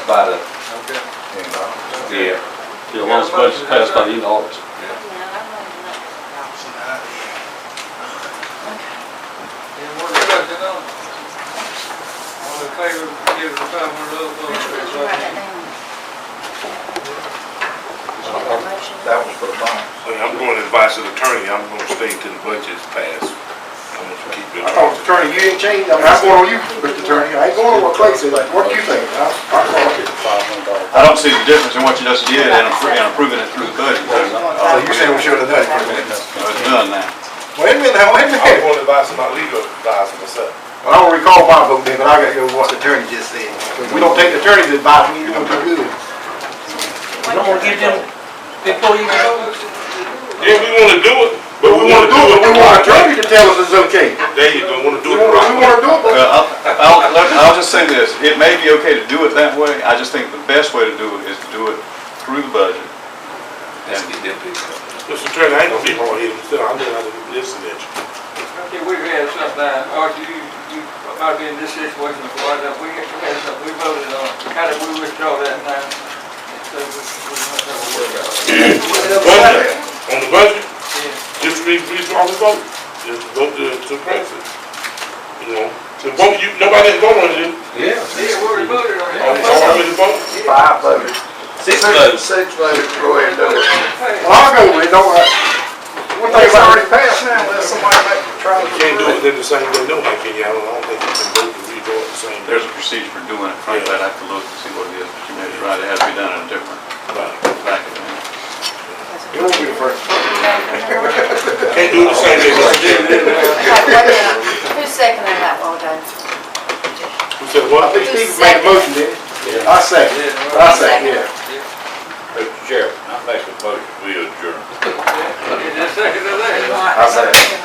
by the, Okay. yeah, Yeah, well, it's budget passed by the end of August. Option I. Any more discussion on it? All in favor, give the five hundred dollar vote. that was for the bond. I mean, I'm going to advise an attorney, I'm gonna stay till the budget's passed. I'm gonna keep it. Oh, attorney, you didn't change, I mean, I'm going on you, Mr. Attorney, I ain't going on what Clay said, what do you think? I- I- I don't see the difference in what you just did and appro- and approving it through the budget. So you saying we should have done it, Chris? So It's done now. Wait a minute, now, wait a I'm minute. going to advise my legal advisor myself. Well, I don't recall my vote then, but I gotta go with what the attorney just said. If We don't take the attorney's advice, we ain't gonna do good. You don't wanna give them before you go? Yeah, we wanna do it, but we wanna do it. We want an attorney to tell us it's okay. There you go, wanna do We it wanna, we properly. wanna do it, but Well, I'll, I'll, let- I'll just say this, it may be okay to do it that way, I just think the best way to do it is to do it through the budget. Let's get them people. Mr. Attorney, I ain't gonna be hard headed, I'm just gonna listen at you. Okay, we've had something, Archie, you, you might be in this situation before, that we had something, we voted on, how did we withdraw that now? So we, we must have a workout. Budget, on the budget, Yeah. just re, redraw the vote, just vote to, to Francis. You know, to vote, you, nobody didn't vote on it, Yeah. Yeah, we already voted on it. on the, Oh, on the vote. five voted. Six votes. Six voted, go ahead and do it. Hey. Well, I'll go with it, don't worry. One thing's already passed now, unless somebody make the trial. You can't do it in the same way, no, my opinion, I don't, I don't think you can vote to redraw it the same. way. There's a procedure for doing it, frankly, I'd have to look and see what it is, but you may be right, it has to be done in a different Right. fashion. It won't be the first. Can't do it the same way, Mr. Jim. Who's seconding that? Well done. Who said what? I think Steve made a motion, didn't he? I second, I second, yeah. Mr. Chairman, I make a motion, we adjourn. Is there a second to that? I second.